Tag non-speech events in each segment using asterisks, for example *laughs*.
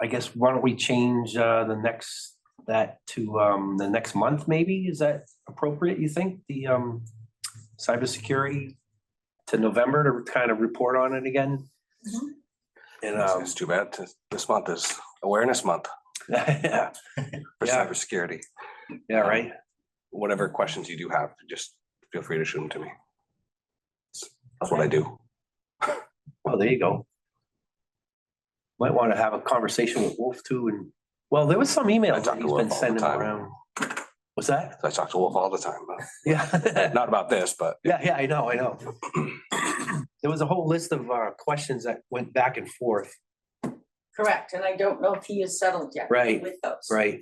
I guess why don't we change uh the next, that to um the next month maybe? Is that appropriate, you think? The um cybersecurity to November to kind of report on it again? Mhm. And It's um, it's too bad. to- This month is awareness month yeah, for Yeah. cybersecurity. *laughs* yeah, right. Whatever questions you do have, just feel free to shoot them to me. That's what I do. Oh, there you go. Might want to have a conversation with Wolf too and, well, there was some I emails talk that to he's Wolf been all the sending time. around. What's that? I talk to Wolf all the time, but *laughs* Yeah. not about this, but Yeah, yeah, I know, I know. *clears throat* There was a whole list of uh questions that went back and forth, Correct, and I don't know if he is settled yet. Right, With those. right?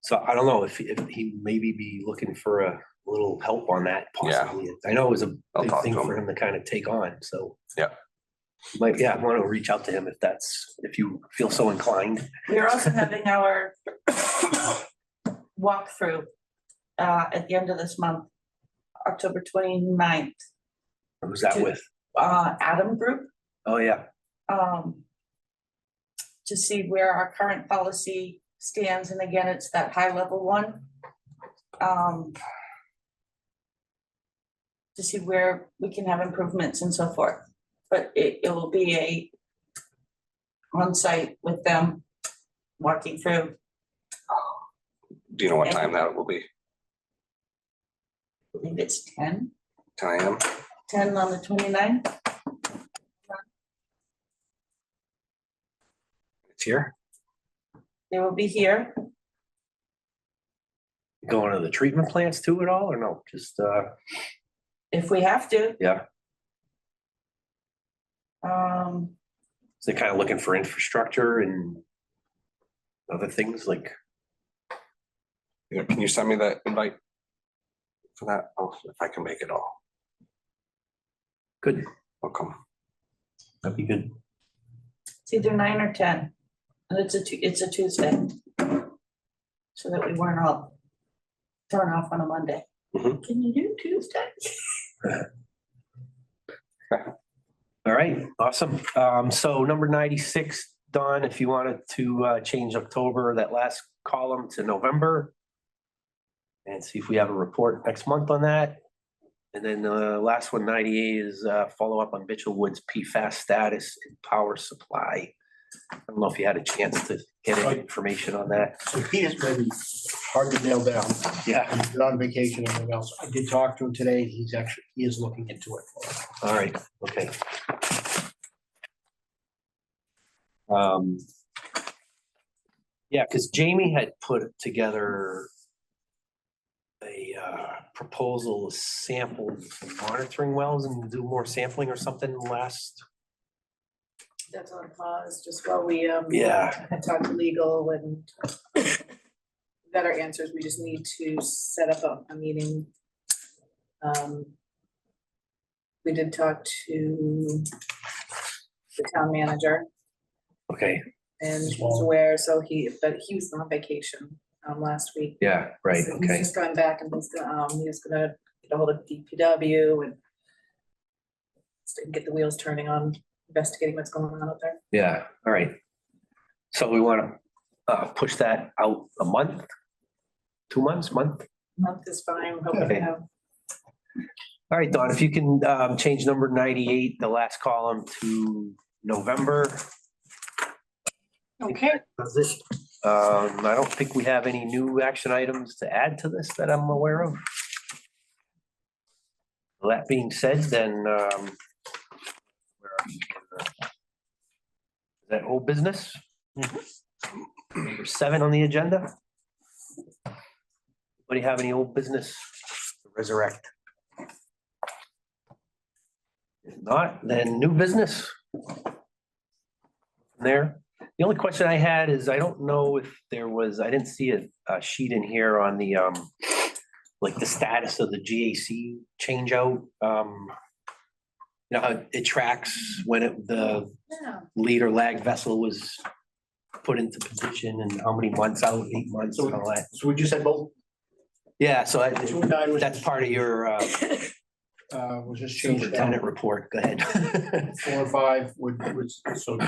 So I don't know if if he maybe be looking for a little help on that Yeah. possibly. I know it was a I'll big talk thing to him. for him to kind of take on, so. Yeah. Might, yeah, I want to reach out to him if that's, if you feel so inclined. We're also having our walkthrough uh, at the end of this month, October 29th. Who's that Dude. with? uh, Adam Group, Oh, yeah. um, to see where our current policy stands, and again, it's that high level one. Um, to see where we can have improvements and so forth, but it, it will be a on-site with them, walking through, do you know what time that will be? I believe it's 10, Ten AM? 10 on the 29th. It's here? they will be here, Going to the treatment plants too at all or no? Just, uh, if we have to. Yeah. Um, they're kind of looking for infrastructure and other things like, Yeah, Can you send me that invite? For that, Oh, if I can make it all, good, I'll come. that'd be good. It's either nine or ten, and it's a, Tu- it's a Tuesday. So that we weren't all thrown off on a Monday. Mhm. Can you do Tuesday? *laughs* All right, awesome. Um, so number ninety-six, Don, if you wanted to, uh, change October, that last column to November. And see if we have a report next month on that. And then, uh, last one, ninety-eight is, uh, follow up on Mitchell Woods PFAS status and power supply. I don't know if you had a chance to get any information on that. So Peter's been hard to nail down. Yeah, He's been on vacation and everything else. I did talk to him today. He's actually, he is looking into it. all right, okay. Um. Yeah, because Jamie had put together a uh, proposal to sample monitoring wells and do more sampling or something last. That's on pause, just while we, um. Yeah. had talked to legal and got our answers, we just need to set up a, a meeting. Um, we did talk to the town manager Okay, and he's aware, so he, but he was on vacation, um, last week. yeah, right, So He's okay, just going back and he's gonna, um, he was gonna get ahold of DPW and just get the wheels turning on investigating what's going on out there. yeah, all right. So we want to uh, push that out a month? Two months, month? month is fine, we're hoping Okay. to have, All right, Don, if you can um change number ninety-eight, the last column to November. Okay. Does it? Um, I don't think we have any new action items to add to this that I'm aware of. That being said, then um. where are we? Is That old business? Number seven on the agenda? What do you have any old business to resurrect? If not, then new business. There, the only question I had is I don't know if there was, I didn't see a, a sheet in here on the, um, like the status of the GAC changeout, um, you know, how it tracks when it, the lead or lag vessel was put into position and how many months out, eight months and all that. So we just had both, Yeah, so I- two and nine was, that's part of your, uh, uh, was just changed down. superintendent report. Go ahead. *laughs* Four and five would, was, so